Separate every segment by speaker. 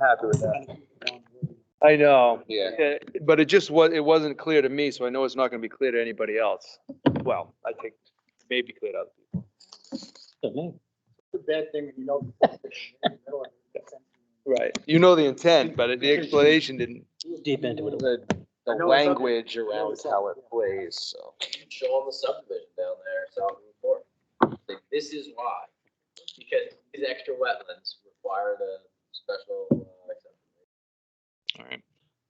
Speaker 1: happy with that. I know,
Speaker 2: Yeah.
Speaker 1: eh, but it just was, it wasn't clear to me, so I know it's not gonna be clear to anybody else. Well, I think maybe clear to other people.
Speaker 3: The bad thing when you know.
Speaker 1: Right. You know the intent, but the explanation didn't.
Speaker 4: Deep into it.
Speaker 2: The, the
Speaker 3: I know it's up-
Speaker 2: language around
Speaker 3: it's up,
Speaker 2: how it
Speaker 3: yeah.
Speaker 2: plays, so.
Speaker 5: show them the subdivision down there, South Route Four. Like, this is why, because these extra wetlands require the special. uh, exception.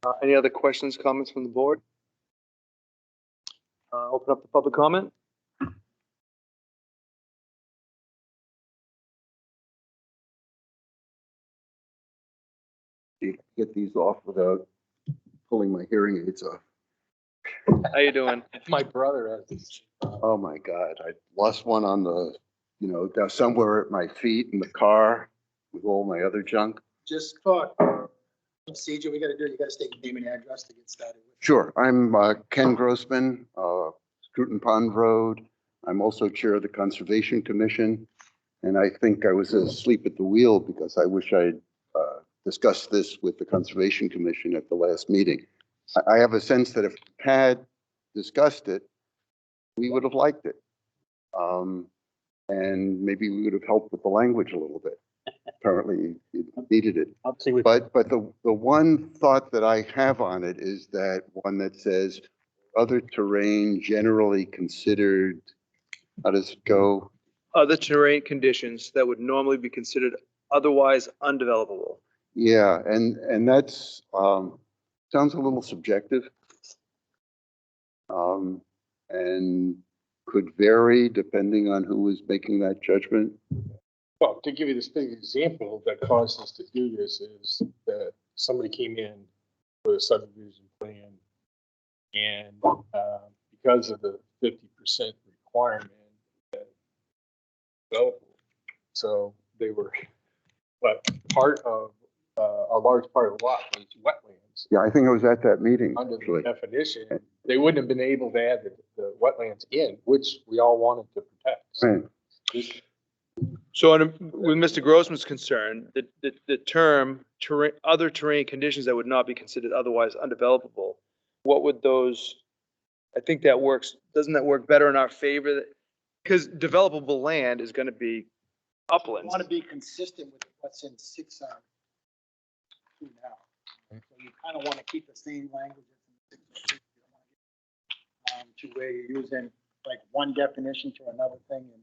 Speaker 1: Uh, Any other questions, comments from the board? Uh, Open up the public comment.
Speaker 6: you can get these off without pulling my hearing aids off.
Speaker 1: How you doing?
Speaker 2: My brother has these.
Speaker 6: Oh, my God. I lost one on the, you know, down somewhere at my feet in the car with all my other junk.
Speaker 3: Just talk. Procedure we gotta do, you gotta state your name and address to get started.
Speaker 6: Sure. I'm uh, Ken Grossman, uh, Scruton Pond Road. I'm also Chair of the Conservation Commission. And I think I was asleep at the wheel because I wish I had uh, discussed this with the Conservation Commission at the last meeting. I I have a sense that if we had discussed it, we would have liked it. Um, And maybe we would have helped with the language a little bit. Apparently, it needed it.
Speaker 4: Obviously, we
Speaker 6: But, but the, the one thought that I have on it is that one that says, other terrain generally considered, how does it go?
Speaker 1: Other terrain conditions that would normally be considered otherwise undevelopable.
Speaker 6: Yeah, and, and that's, um, sounds a little subjective. Um, and could vary depending on who was making that judgment.
Speaker 7: Well, to give you this big example that caused us to do this is that somebody came in with a subdivision plan. And uh, because of the fifty percent requirement. that developed, So they were, but part of, uh, a large part of the lot was wetlands.
Speaker 6: Yeah, I think I was at that meeting,
Speaker 7: Under the
Speaker 6: actually.
Speaker 7: definition, they wouldn't have been able to add the- the wetlands in, which we all wanted to protect. So
Speaker 6: Right.
Speaker 7: this-
Speaker 1: So on a- with Mr. Grossman's concern, the, the, the term terrain, other terrain conditions that would not be considered otherwise undevelopable, what would those, I think that works, doesn't that work better in our favor? Because developable land is gonna be
Speaker 3: I
Speaker 1: uplands.
Speaker 3: want to be consistent with what's in six R. two now. So you kind of want to keep the same language. that's in 6R2. You don't wanna get, um, To where you're using like one definition to another thing and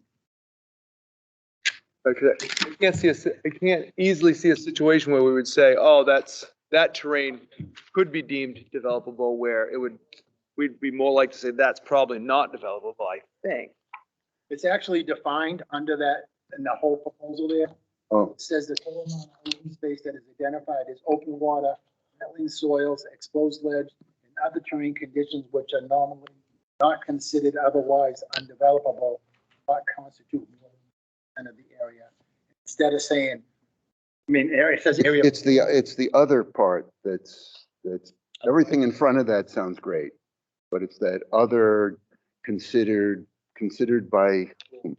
Speaker 1: Like, I can't see, a si- I can't easily see a situation where we would say, oh, that's, that terrain could be deemed developable where it would, we'd be more like to say that's probably not developable, I think.
Speaker 3: it's actually defined under that, in the whole proposal there.
Speaker 6: Oh,
Speaker 3: It says the total amount of open space that is identified is open water, wetland soils, exposed ledge, and other terrain conditions which are normally not considered otherwise undevelopable, but constitute more than 10% of the area. Instead of saying, I mean, area, it says area.
Speaker 6: it's the, it's the other part that's, that's Everything in front of that sounds great, but it's that other considered, considered by whom?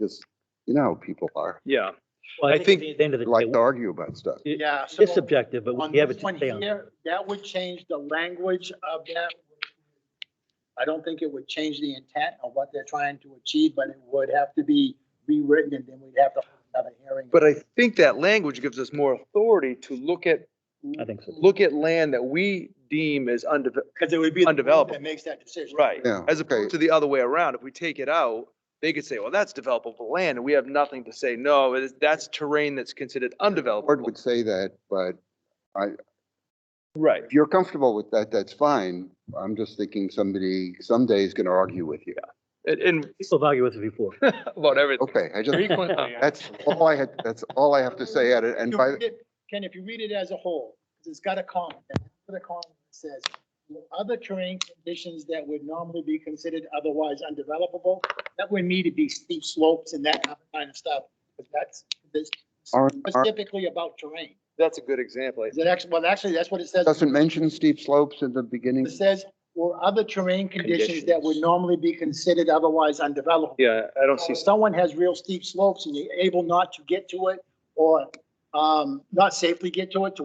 Speaker 6: just, you know, how people are,
Speaker 1: Yeah.
Speaker 4: Well,
Speaker 1: I
Speaker 4: I
Speaker 1: think
Speaker 4: think at the end of the
Speaker 6: They
Speaker 4: day,
Speaker 6: like to argue about stuff.
Speaker 3: Yeah. so
Speaker 4: it's subjective, but
Speaker 3: On
Speaker 4: we have it
Speaker 3: this
Speaker 4: to
Speaker 3: one
Speaker 4: stay on.
Speaker 3: here, that would change the language of that. I don't think it would change the intent of what they're trying to achieve, but it would have to be rewritten and then we'd have to have a hearing.
Speaker 1: But I think that language gives us more authority to look at,
Speaker 4: I think so.
Speaker 1: look at land that we deem as undeveloped.
Speaker 3: Because it would be. the board
Speaker 1: Undevelopable.
Speaker 3: That makes that decision.
Speaker 6: Yeah,
Speaker 1: As
Speaker 6: okay.
Speaker 1: opposed to the other way around. If we take it out, they could say, well, that's developable land, and we have nothing to say, no, it is- that's terrain that's considered
Speaker 6: Board
Speaker 1: undevelopable.
Speaker 6: would say that, but
Speaker 1: Right.
Speaker 6: if you're comfortable with that, that's fine. I'm just thinking somebody someday is gonna argue with you.
Speaker 1: And, and
Speaker 4: People have argued with it before.
Speaker 1: about everything.
Speaker 6: Okay, I just,
Speaker 7: Frequently, I-
Speaker 6: that's all I had, that's all I have to say at it, and
Speaker 3: You
Speaker 6: by,
Speaker 3: read it- Ken, if you read it as a whole, 'cause it's got a comment, and after the comment it says, "With other terrain conditions that would normally be considered otherwise undevelopable, that would need to be steep slopes and that kind of stuff, because that's, this
Speaker 6: R- R-
Speaker 3: specifically about terrain.
Speaker 1: That's a good example. I
Speaker 3: Is it actually, well, actually, that's what it says.
Speaker 6: doesn't mention steep slopes at the
Speaker 3: It
Speaker 6: beginning.
Speaker 3: says, or other terrain conditions that would normally be considered otherwise undevelopable.
Speaker 1: Yeah, I don't
Speaker 3: So
Speaker 1: see,
Speaker 3: if someone has real steep slopes and you're able not to get to it or um, not safely get to it, to